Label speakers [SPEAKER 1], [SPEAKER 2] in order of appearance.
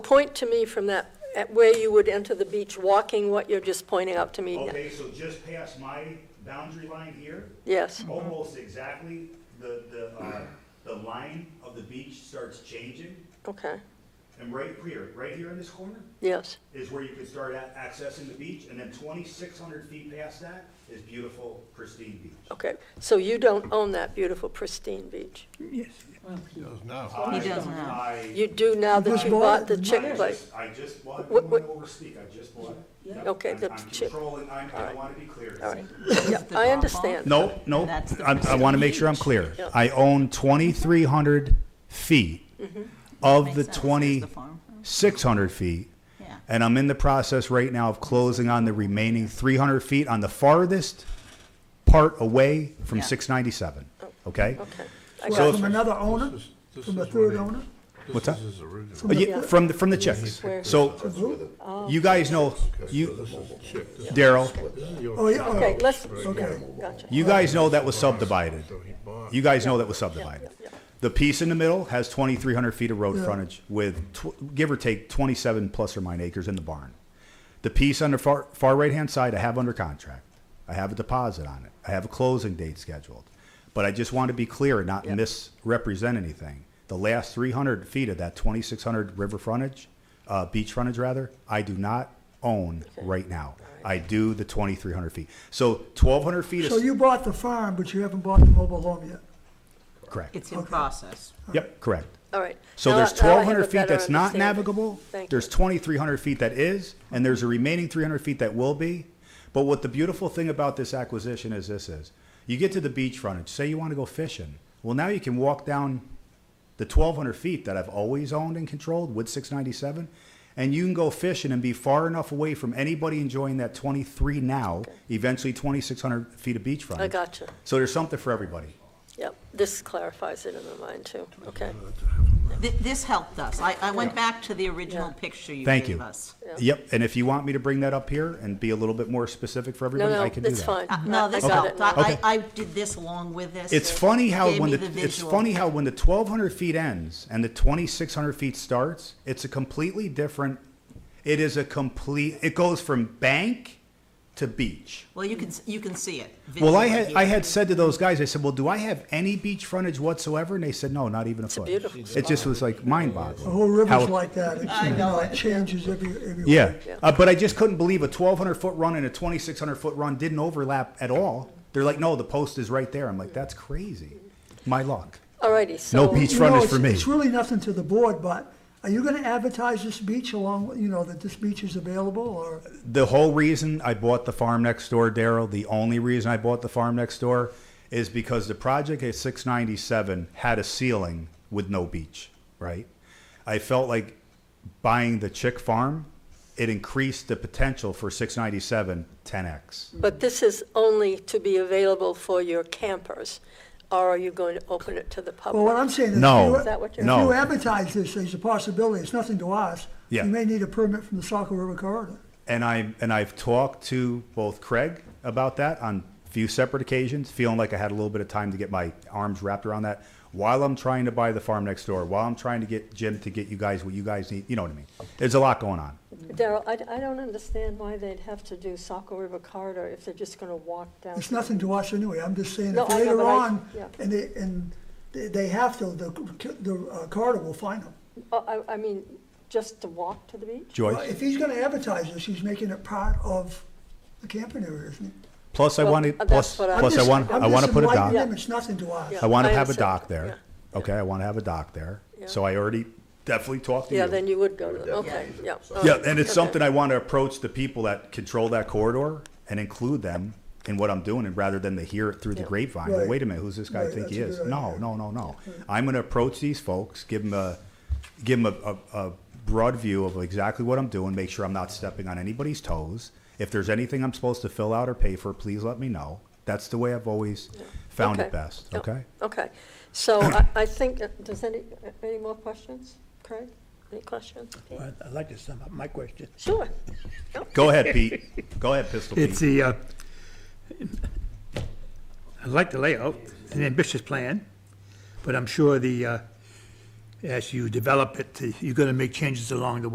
[SPEAKER 1] point to me from that, at where you would enter the beach walking, what you're just pointing out to me?
[SPEAKER 2] Okay, so just past my boundary line here,
[SPEAKER 1] Yes,
[SPEAKER 2] almost exactly, the, the, uh, the line of the beach starts changing.
[SPEAKER 1] okay,
[SPEAKER 2] And right here, right here in this corner
[SPEAKER 1] yes,
[SPEAKER 2] is where you can start a- accessing the beach. And then twenty-six hundred feet past that is beautiful pristine beach.
[SPEAKER 1] okay. So you don't own that beautiful pristine beach?
[SPEAKER 3] Yes,
[SPEAKER 4] Does now.
[SPEAKER 2] I-
[SPEAKER 5] does now.
[SPEAKER 2] I,
[SPEAKER 1] You do now that
[SPEAKER 3] Just
[SPEAKER 1] you
[SPEAKER 3] bought
[SPEAKER 1] bought the
[SPEAKER 3] it.
[SPEAKER 1] chick
[SPEAKER 2] I
[SPEAKER 1] place?
[SPEAKER 2] just, I just bought, I
[SPEAKER 1] What-
[SPEAKER 2] don't
[SPEAKER 1] what-
[SPEAKER 2] wanna overspeak, I just bought it. Yep,
[SPEAKER 1] Okay,
[SPEAKER 2] I'm-
[SPEAKER 1] the
[SPEAKER 2] I'm
[SPEAKER 1] chick-
[SPEAKER 2] controlling, I'm- I, I wanna be clear.
[SPEAKER 1] All right,
[SPEAKER 5] This is the
[SPEAKER 1] I
[SPEAKER 5] drop-off?
[SPEAKER 1] understand.
[SPEAKER 2] No, no,
[SPEAKER 5] That's the
[SPEAKER 2] I, I want to make sure I'm clear.
[SPEAKER 1] Yep.
[SPEAKER 2] I own twenty-three hundred feet of
[SPEAKER 5] Mm-hmm. Makes
[SPEAKER 2] the
[SPEAKER 5] sense. There's the
[SPEAKER 2] twenty-six
[SPEAKER 5] farm.
[SPEAKER 2] hundred feet.
[SPEAKER 5] Yeah.
[SPEAKER 2] And I'm in the process right now of closing on the remaining three hundred feet on the farthest part away from
[SPEAKER 5] Yeah. Oh,
[SPEAKER 2] six ninety-seven, okay?
[SPEAKER 1] Okay. I got
[SPEAKER 3] well,
[SPEAKER 1] it.
[SPEAKER 3] from another owner,
[SPEAKER 4] This is- this
[SPEAKER 3] from a
[SPEAKER 4] is what
[SPEAKER 3] third
[SPEAKER 4] I-
[SPEAKER 3] owner,
[SPEAKER 2] What's
[SPEAKER 4] This
[SPEAKER 2] that?
[SPEAKER 4] is his original.
[SPEAKER 2] Uh, yeah,
[SPEAKER 1] Yeah.
[SPEAKER 2] From, the from the chicks.
[SPEAKER 1] Where-
[SPEAKER 2] So, you guys know, you, Daryl,
[SPEAKER 4] This is your-
[SPEAKER 3] oh, yeah,
[SPEAKER 1] Okay,
[SPEAKER 3] oh,
[SPEAKER 1] let's,
[SPEAKER 3] okay.
[SPEAKER 1] gotcha.
[SPEAKER 2] you guys know that was subdivided.
[SPEAKER 4] So he bought.
[SPEAKER 2] You guys know that was subdivided. The piece in the middle has 2,300 feet of road frontage with, tw- give or take, 27 plus or minus acres in the barn. The piece on the far, far right-hand side, I have under contract. I have a deposit on it. I have a closing date scheduled. But I just want to be clear and not
[SPEAKER 1] Yeah.
[SPEAKER 2] misrepresent anything. The last 300 feet of that 2,600 river frontage, uh, beach frontage rather, I do not own right now. I do the 2,300 feet. So 1,200 feet
[SPEAKER 3] So
[SPEAKER 2] is,
[SPEAKER 3] you bought the farm, but you haven't bought the mobile home yet?
[SPEAKER 2] correct.
[SPEAKER 5] It's in process.
[SPEAKER 2] Yep, correct.
[SPEAKER 1] All right.
[SPEAKER 2] So
[SPEAKER 1] Now I-
[SPEAKER 2] there's
[SPEAKER 1] now I have
[SPEAKER 2] twelve
[SPEAKER 1] a
[SPEAKER 2] hundred feet
[SPEAKER 1] better
[SPEAKER 2] that's not
[SPEAKER 1] understanding.
[SPEAKER 2] navigable,
[SPEAKER 1] Thank
[SPEAKER 2] there's
[SPEAKER 1] you.
[SPEAKER 2] twenty-three hundred feet that is, and there's a remaining three hundred feet that will be. But what the beautiful thing about this acquisition is this is, you get to the beach frontage, say you wanna go fishing, well, now you can walk down the twelve hundred feet that I've always owned and controlled with six ninety-seven, and you can go fishing and be far enough away from anybody enjoying that twenty-three now, eventually twenty-six hundred feet of beach frontage.
[SPEAKER 1] I gotcha.
[SPEAKER 2] So there's something for everybody.
[SPEAKER 1] Yep, this clarifies it in my mind too, okay?
[SPEAKER 5] Th- This helped us. I, I went back to the original
[SPEAKER 1] Yeah.
[SPEAKER 5] picture you
[SPEAKER 2] Thank you.
[SPEAKER 5] gave us.
[SPEAKER 1] Yeah.
[SPEAKER 2] Yep, and if you want me to bring that up here and be a little bit more specific for
[SPEAKER 1] No,
[SPEAKER 2] everybody, I
[SPEAKER 1] no,
[SPEAKER 2] can do that.
[SPEAKER 1] it's fine.
[SPEAKER 5] Uh,
[SPEAKER 1] I-
[SPEAKER 5] No,
[SPEAKER 1] I
[SPEAKER 5] this
[SPEAKER 1] got
[SPEAKER 5] helped.
[SPEAKER 1] it now.
[SPEAKER 5] I, I I did this along with this.
[SPEAKER 2] It's
[SPEAKER 5] It
[SPEAKER 2] funny how
[SPEAKER 5] gave
[SPEAKER 2] when
[SPEAKER 5] me
[SPEAKER 2] the, it's
[SPEAKER 5] visual.
[SPEAKER 2] funny how when the 1200 feet ends and the 2600 feet starts, it's a completely different it is a complete it goes from bank to beach.
[SPEAKER 5] Well, you can, s- you can see it.
[SPEAKER 2] Well, I
[SPEAKER 5] visually
[SPEAKER 2] had
[SPEAKER 5] here.
[SPEAKER 2] I had said to those guys, I said, "Well, do I have any beach frontage whatsoever?" And they said, "No, not even a foot."
[SPEAKER 1] beautiful
[SPEAKER 2] It just was like mind-boggling.
[SPEAKER 3] The whole river's
[SPEAKER 2] how-
[SPEAKER 3] like that, it's,
[SPEAKER 5] I
[SPEAKER 3] you
[SPEAKER 5] know
[SPEAKER 3] know,
[SPEAKER 5] it.
[SPEAKER 3] it changes every, every.
[SPEAKER 2] Yeah,
[SPEAKER 1] Yeah.
[SPEAKER 2] uh, but I just couldn't believe a 1,200 foot run and a 2,600 foot run didn't overlap at all. They're like, no, the post is right there. I'm like, that's crazy. My luck.
[SPEAKER 1] All righty, so.
[SPEAKER 2] No beach
[SPEAKER 3] You know,
[SPEAKER 2] frontage
[SPEAKER 3] it's-
[SPEAKER 2] for me.
[SPEAKER 3] It's really nothing to the board, but are you gonna advertise this beach along, you know, that this beach is available, or?
[SPEAKER 2] The whole reason I bought the farm next door, Daryl, the only reason I bought the farm next door is because the project at 697 had a ceiling with no beach, right? I felt like buying the Chick farm, it increased the potential for 697 10x.
[SPEAKER 1] But this is only to be available for your campers, or are you going to open it to the
[SPEAKER 3] Well, what
[SPEAKER 1] public?
[SPEAKER 3] I'm saying is. if
[SPEAKER 2] No,
[SPEAKER 3] you-
[SPEAKER 1] Is that what you're-
[SPEAKER 2] no.
[SPEAKER 3] If you advertise this, there's a possibility, it's nothing to us.
[SPEAKER 2] Yeah.
[SPEAKER 3] You may need a permit from the Saco River Corridor.
[SPEAKER 2] and I and I've talked to both Craig about that on a few separate occasions, feeling like I had a little bit of time to get my arms wrapped around that while I'm trying to buy the farm next door, while I'm trying to get Jim to get you guys what you guys need. You know what I mean? There's a lot going on.
[SPEAKER 1] Daryl, I, I don't understand why they'd have to do Saco River corridor if they're just gonna walk down.
[SPEAKER 3] It's nothing to us anyway, I'm just saying,
[SPEAKER 1] No,
[SPEAKER 3] if
[SPEAKER 1] I know,
[SPEAKER 3] later
[SPEAKER 1] but I-
[SPEAKER 3] on,
[SPEAKER 1] yeah.
[SPEAKER 3] and they, and they- they have to, the, the uh, corridor will find them.
[SPEAKER 1] Oh, I, I mean, just to walk to the beach?
[SPEAKER 3] Well,
[SPEAKER 2] Joyce.
[SPEAKER 3] If he's gonna advertise this, he's making it part of the camping area, isn't he?
[SPEAKER 2] Plus, I
[SPEAKER 1] Well,
[SPEAKER 2] wanted.
[SPEAKER 1] that's
[SPEAKER 2] Plus,
[SPEAKER 1] what I-
[SPEAKER 2] plus, I
[SPEAKER 1] I'm
[SPEAKER 2] want.
[SPEAKER 3] I'm
[SPEAKER 2] I want to
[SPEAKER 3] just
[SPEAKER 2] put a dock.
[SPEAKER 3] inviting him, It's nothing to us.
[SPEAKER 1] Yeah.
[SPEAKER 2] I want
[SPEAKER 1] I
[SPEAKER 2] to have a
[SPEAKER 1] understand.
[SPEAKER 2] dock there.
[SPEAKER 1] Yeah.
[SPEAKER 2] Okay, I want to have a dock there.
[SPEAKER 1] Yeah.
[SPEAKER 2] So I already definitely talked to
[SPEAKER 1] Yeah,
[SPEAKER 2] you.
[SPEAKER 1] then you would go to the, okay, yeah. all
[SPEAKER 2] Yeah,
[SPEAKER 1] right,
[SPEAKER 2] and it's
[SPEAKER 1] okay.
[SPEAKER 2] something I want to approach the people that control that corridor and include them in what I'm doing, and rather than to hear it through the
[SPEAKER 1] Yeah.
[SPEAKER 2] grapevine, well,
[SPEAKER 3] Right.
[SPEAKER 2] wait a minute, who's this guy
[SPEAKER 3] Right,
[SPEAKER 2] think he
[SPEAKER 3] that's
[SPEAKER 2] is?
[SPEAKER 3] a good
[SPEAKER 2] No,
[SPEAKER 3] idea.
[SPEAKER 2] no, no, no. I'm gonna approach these folks, give them a, give them a, a, a broad view of exactly what I'm doing, make sure I'm not stepping on anybody's toes. If there's anything I'm supposed to fill out or pay for, please let me know. That's the way I've always found
[SPEAKER 1] Okay.
[SPEAKER 2] it best,
[SPEAKER 1] Yeah,
[SPEAKER 2] okay?
[SPEAKER 1] Okay, so I, I think, uh, does any, any more questions? Craig, any questions?
[SPEAKER 6] Well, I'd like to sum up my question.
[SPEAKER 1] Sure.
[SPEAKER 2] Go ahead, Pete. Go ahead, Pistol
[SPEAKER 6] It's
[SPEAKER 2] Pete.
[SPEAKER 6] the, uh, I like the layout, an ambitious plan, but I'm sure the, uh, as you develop it, you're going to make changes along the way.